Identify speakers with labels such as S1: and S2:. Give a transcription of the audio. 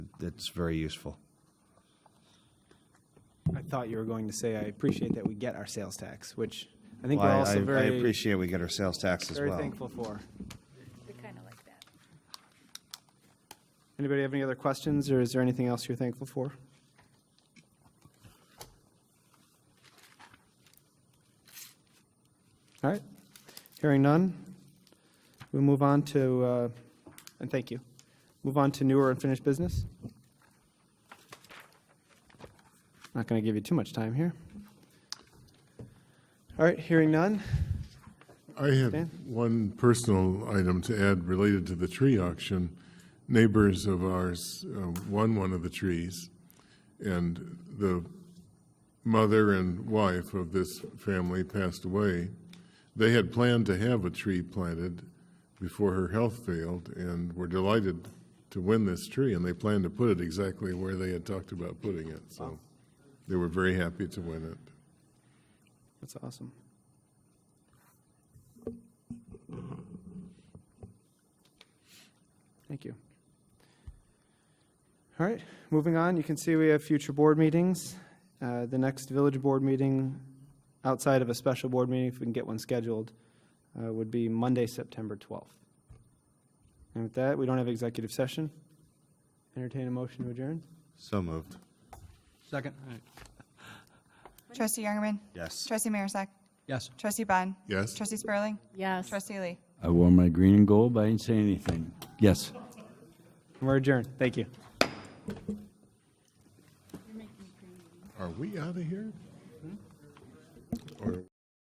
S1: it's very useful.
S2: I thought you were going to say, I appreciate that we get our sales tax, which I think
S1: Well,
S2: we're
S1: I-
S2: also
S1: I- I
S2: very,
S1: appreciate we get our sales tax as
S2: very
S1: well.
S2: thankful for.
S3: We kind of like that.
S2: Anybody have any other questions, or is there anything else you're thankful for? All right, hearing none, we move on to, uh, and thank you, move on to newer unfinished business. Not going to give you too much time here. All right, hearing none,
S4: I have
S2: Dan?
S4: one personal item to add related to the tree auction. Neighbors of ours uh, won one of the trees, and the mother and wife of this family passed away. They had planned to have a tree planted before her health failed and were delighted to win this tree, and they planned to put it exactly where they had talked about putting it. So they were very happy to win it.
S2: that's awesome. Thank you. All right, moving on, you can see we have future board meetings. Uh, The next village board meeting, outside of a special board meeting, if we can get one scheduled, uh, would be Monday, September 12th. And with that, we don't have executive session. Entertain a motion to adjourn?
S1: So moved.
S5: Second?
S6: Trustee Youngerman.
S1: Yes.
S6: Trustee Marisak.
S5: Yes.
S6: Trustee Bond.
S4: Yes?
S6: Trustee Spurling.
S3: Yes.
S6: Trustee Lee.
S7: I wore my green and gold, but I didn't say anything. Yes.
S2: We're adjourned, thank you.
S4: Are we out of here? Or-